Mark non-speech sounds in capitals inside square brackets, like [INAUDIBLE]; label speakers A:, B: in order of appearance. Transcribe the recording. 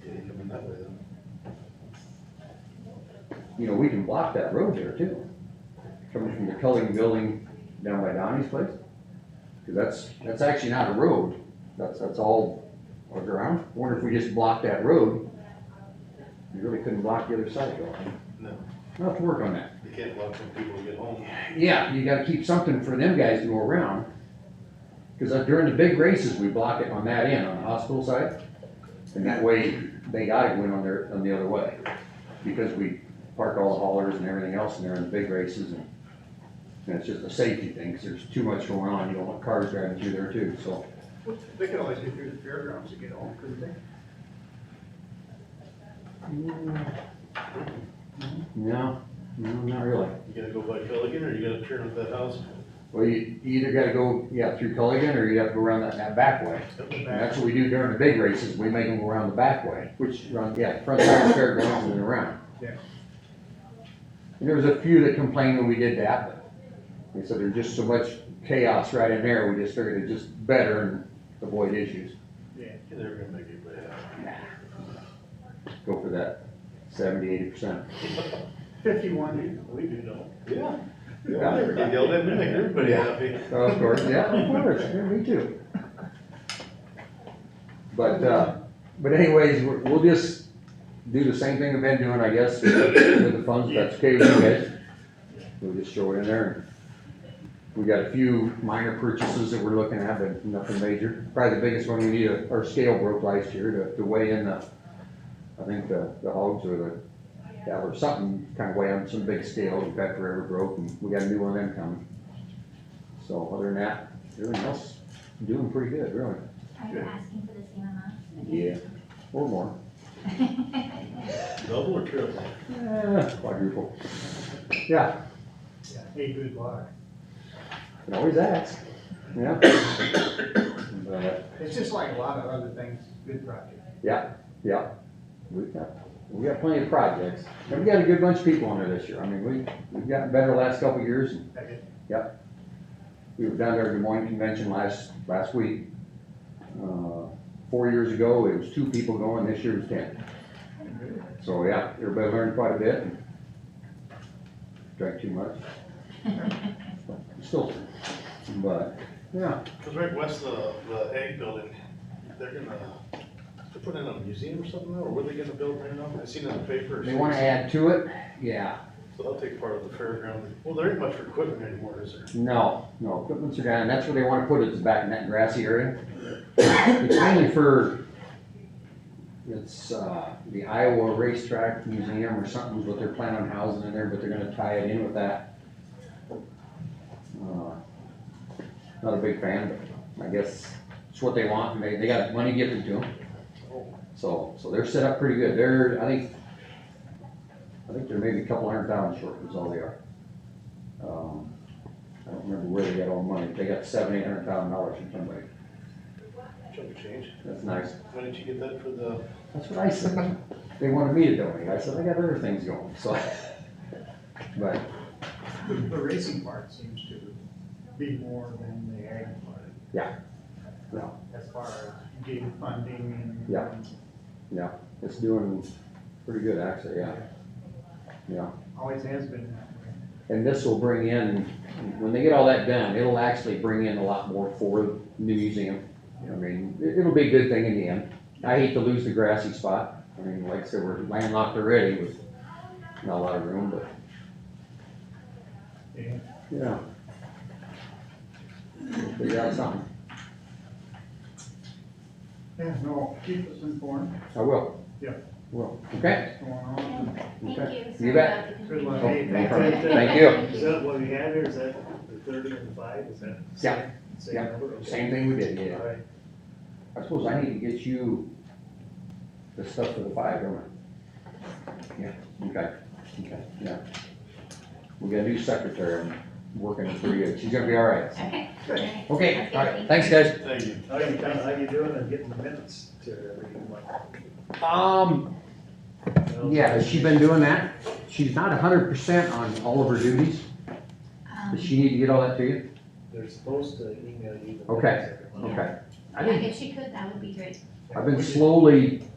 A: that way then.
B: you know, we can block that road there too. Coming from the Culling Building down by Donnie's place. Cause that's, that's actually not a road, that's, that's all our ground. Wonder if we just blocked that road, you really couldn't block the other side though. huh?
A: No,
B: We'll have to work on that.
A: you can't block when people get home.
B: Yeah, you gotta keep something for them guys to go around. Cause uh, during the big races, we block it on that end, on the hospital side. And that way, they gotta go in on their, on the other way. Because we park all the haulers and everything else in there in the big races and. And it's just a safety thing, cause there's too much going on, you don't want cars driving through there too, so.
C: They could always get through the fairgrounds to get home, couldn't they?
B: No, no, not really.
A: You gotta go by Pelican or you gotta turn at that house.
B: Well, you you either gotta go, yeah, through Culligan or you have to go around that, that back way. And that's what we do during the big races, we make them go around the back way, which run, yeah, front side of the fairgrounds and then around.
C: Yeah.
B: And there was a few that complained when we did that, but they said there's just so much chaos right in there, we just figured it's just better and avoid issues.
A: You're never gonna make it by half.
B: Go for that seventy, eighty percent.
C: Fifty-one,
A: We do know. Yeah.
B: Yeah.
A: Never get yelled at, we make everybody happy.
B: Oh, Of course, yeah, of course, yeah, me too. But, uh, but anyways, we're- we'll just do the same thing we've been doing, I guess, with the funds, if that's okay with you guys. We'll just throw it in there. We got a few minor purchases that we're looking at, but nothing major. Probably the biggest one we need, uh, our scale broke last year to, to weigh in the, I think the, the hogs or the cattle or something, kinda weigh on some big scale, we've got forever broke, and we got a new one in coming. So other than that, everything else doing pretty good, really,
D: Are you asking for the same amount?
B: Yeah. or more.
A: Double or triple?
B: Eh, [LAUGHS] Quadruple. Yeah,
C: yeah, hey, good luck.
B: can always ask, yeah. [COUGHS] But,
C: It's just like a lot of other things, good project.
B: yeah, we've got, we got plenty of projects, and we got a good bunch of people on there this year, I mean, we, we've gotten better the last couple of years.
C: I did.
B: We were down there at Des Moines Convention last, last week. Uh, Four years ago, it was two people going, this year was ten. So, yeah, everybody learned quite a bit. and Drank too much. Still, but, yeah,
A: Cause right west of the egg building, they're gonna, they're putting in a museum or something now, or what are they gonna build right now? I seen it in the paper.
B: they wanna add to it, yeah,
A: So they'll take part of the fairground. Well, there ain't much for equipment anymore, is there?
B: no, no, equipment's are down, that's where they wanna put it, is back in that grassy area. It's mainly for, it's, uh, the Iowa Racetrack Museum or something, is what they're planning on housing in there, but they're gonna tie it in with that. Uh, Not a big fan, but I guess it's what they want, and they, they got money given to them. So, so they're set up pretty good, they're, I think, I think they're maybe a couple hundred thousand short is all they are. Um, I don't remember where they got all the money, they got seven, eight hundred thousand dollars from somebody,
A: Chunk of change.
B: that's nice.
A: Why didn't you get that for the,
B: That's what I said. They wanted me to donate. I said, I got other things going, so. [LAUGHS] But,
C: The, the racing part seems to be more than the ag part.
B: Yeah. Yeah.
C: As far as getting funding and.
B: Yeah. yeah, it's doing pretty good, actually, yeah. Yeah.
C: Always has been that way.
B: And this will bring in, when they get all that done, it'll actually bring in a lot more for the museum. I mean, it- it'll be a good thing in the end. I hate to lose the grassy spot. I mean, like I said, we're landlocked already with not a lot of room, but,
C: Yeah.
B: yeah. We'll Figure out something.
C: Yeah, no, keep us informed,
B: I will.
C: Yeah.
B: Will, okay?
C: what's going on.
D: Thank you.
B: You
D: Sorry
B: bet.
D: about the
C: Good luck.
B: Oh,
C: Hey,
D: confusion.
B: no
C: thank
B: problem.
C: you.
B: Thank you.
E: Is that what we have here, is that the thirty and the five, is that? the same- Same
B: Yeah.
E: number, okay.
B: Same thing we did, yeah.
E: All right,
B: I suppose I need to get you the stuff for the five, don't I? Yeah, okay, okay, yeah. We got a new secretary, I'm working for you, she's gonna be all right.
D: Okay.
B: Okay, all right, thanks, guys.
A: thank you.
E: how you, kinda- how you doing and getting the minutes to everyone?
B: Um, yeah, has she been doing that? She's not hundred percent on all of her duties,
D: Um,
B: does she need to get all that to you?
E: They're supposed to email you the minutes
B: Okay,
E: every month.
B: Okay. I
D: Yeah,
B: didn't,
D: if she could, that would be great.
B: I've been slowly